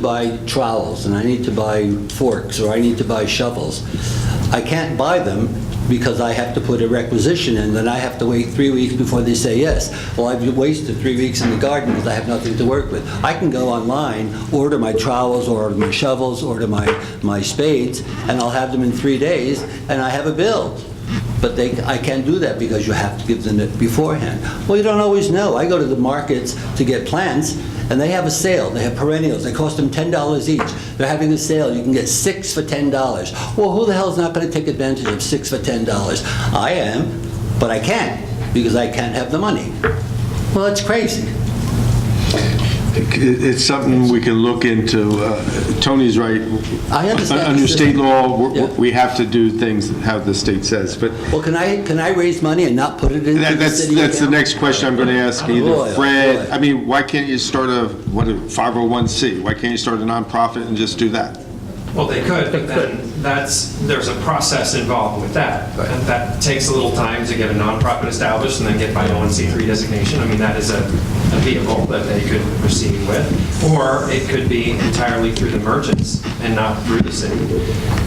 buy trowels, and I need to buy forks, or I need to buy shovels. I can't buy them because I have to put a requisition in, then I have to wait three weeks before they say yes. Well, I've wasted three weeks in the garden because I have nothing to work with. I can go online, order my trowels, order my shovels, order my, my spades, and I'll have them in three days, and I have a bill. But they, I can't do that because you have to give them it beforehand. Well, you don't always know. I go to the markets to get plants, and they have a sale. They have perennials. They cost them ten dollars each. They're having a sale. You can get six for ten dollars. Well, who the hell's not going to take advantage of six for ten dollars? I am, but I can't because I can't have the money. Well, that's crazy. It- It's something we can look into. Uh, Tony's right. Uh, I understand. Under state law, Yeah. we're- we have to do things how the state says, but Well, can I can I raise money and not put it into that- the that's, city? that's the account? next question I'm going to ask Boy, either oh Fred. boy. I mean, why can't you start a, what, a 501c? Why can't you start a nonprofit and just do that? Well, they could, but then that's, there's a process involved with that. And that takes a little time to get a nonprofit established and then get 501c3 designation. I mean, that is a a vehicle that they could proceed with. Or it could be entirely through the merchants and not through the city.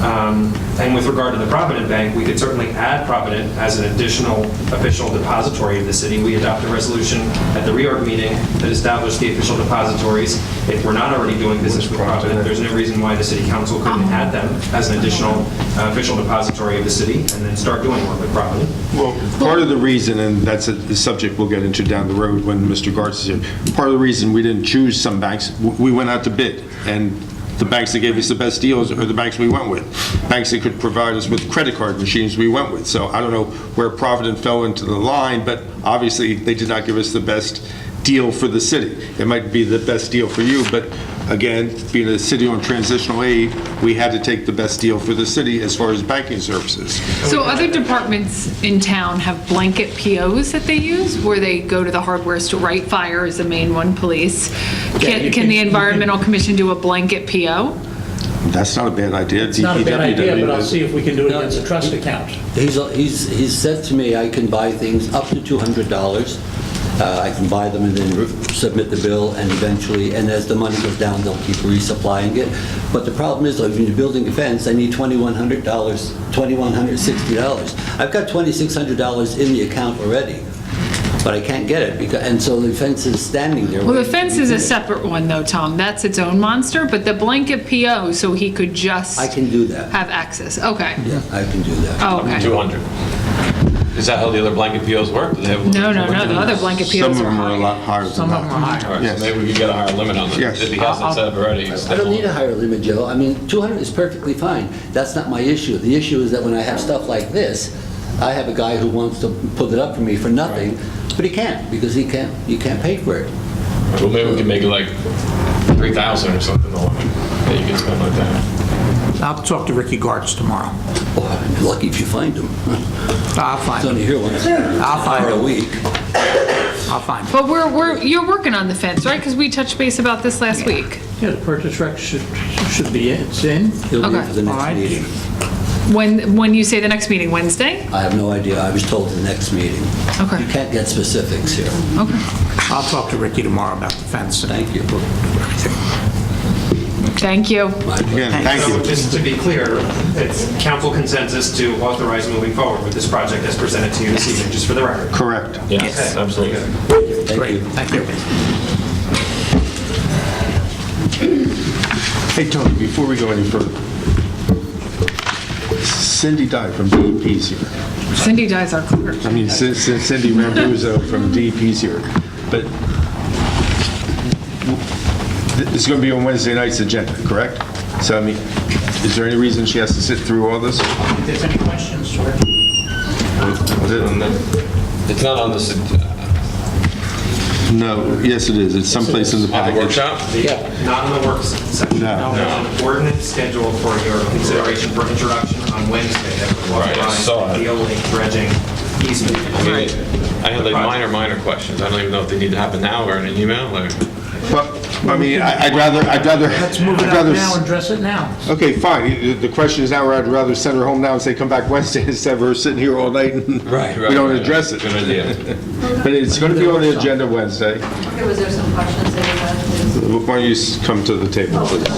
Um, And with regard to the Provident Bank, we could certainly add Provident as an additional official depository of the city. We adopted a resolution at the reorg meeting that established the official depositories. If we're not already doing business with Provident, there's no reason why the city council couldn't add them as an additional uh, official depository of the city and then start doing work with Provident. Well, part of the reason, and that's a the subject we'll get into down the road when Mr. Gartz is here, part of the reason we didn't choose some banks, w- we went out to bid, and the banks that gave us the best deals are the banks we went with. Banks that could provide us with credit card machines, we went with. So I don't know where Provident fell into the line, but obviously, they did not give us the best deal for the city. It might be the best deal for you, but again, being a city on transitional aid, we had to take the best deal for the city as far as banking services. So other departments in town have blanket POs that they use, where they go to the hardware store, right? Fire is the main one, police. Can, can the Environmental Commission do a blanket PO? That's not a bad idea. It's not a bad idea, but I'll see DPW. if we can do it against a trust account. He's, he's, he's said to me, I can buy things up to $200. Uh, I can buy them and then re- submit the bill, and eventually, and as the money goes down, they'll keep resupplying it. But the problem is, if you're building a fence, I need $2,100, $2,160. I've got $2,600 in the account already, but I can't get it, because, and so the fence is standing there. Well, the fence is a separate one though, Tom. That's its own monster, but the blanket PO, so he could just I can do that. have access. Okay. Yeah, I can do that. Oh, Up to okay. 200. Is that how the other blanket POs work? Do they have a No, no, limit? no, the other blanket Some of POs are them are a high. lot higher than Some of them are that. All higher. right, Yes. so maybe we could get a higher limit on them. Yes. If he hasn't set up already. it's I don't need a definitely- higher limit, Joe. I mean, 200 is perfectly fine. That's not my issue. The issue is that when I have stuff like this, I have a guy who wants to put it up for me for nothing, but he can't, because he can't, you can't pay for it. Well, maybe we can make it like 3,000 or something, the limit that you can spend like that. I'll talk to Ricky Gartz tomorrow. Oh, you're Lucky if you find him. I'll It's find only him. here once. I'll find Or a him. week. I'll find him. But we're, we're, you're working on the fence, right? Because we touched base about this last week. Yeah, the purchase rec should, should be, in. it's in. He'll be here Okay. for the All next right. meeting. When, when you say the next meeting, Wednesday? I have no idea. I was told the next meeting. Okay. You can't get specifics here. Okay. I'll talk to Ricky tomorrow about the fence. and- Thank you. Thank you. My pleasure. Again, thank So you. just to be clear, it's council consensus to authorize moving forward with this project as presented to you this evening, just for the record. Correct. Yes, absolutely. Thank Great, you. thank you. Hey, Tony, before we go any further, Cindy Dye from DEP's here. Cindy Dye's our clerk. I mean, Cin- Cin- Cindy Rambuzzo from DEP's here. But th- it's going to be on Wednesday night's agenda, correct? So I mean, is there any reason she has to sit through all this? If there's any questions, sir. Was it- It's not on this, No, yes, it is. It's someplace in the on the package. workshop? Not in the works section. No. There's an ordinance scheduled for your consideration for introduction on Wednesday that would Right, I saw authorize it. the only dredging easement. I mean, I had like minor, minor questions. I don't even know if they need to happen now or in an email or. Well, I mean, I- I'd rather, I'd rather. Let's move it I'd up rather now s- and dress it now. Okay, fine. The- The question is now, I'd rather send her home now and say, come back Wednesday instead of her sitting here all night and Right, we don't address it. Good idea. But it's going to be on the agenda Wednesday. Okay, was there some questions that you had? Why don't you s- come to the table, please?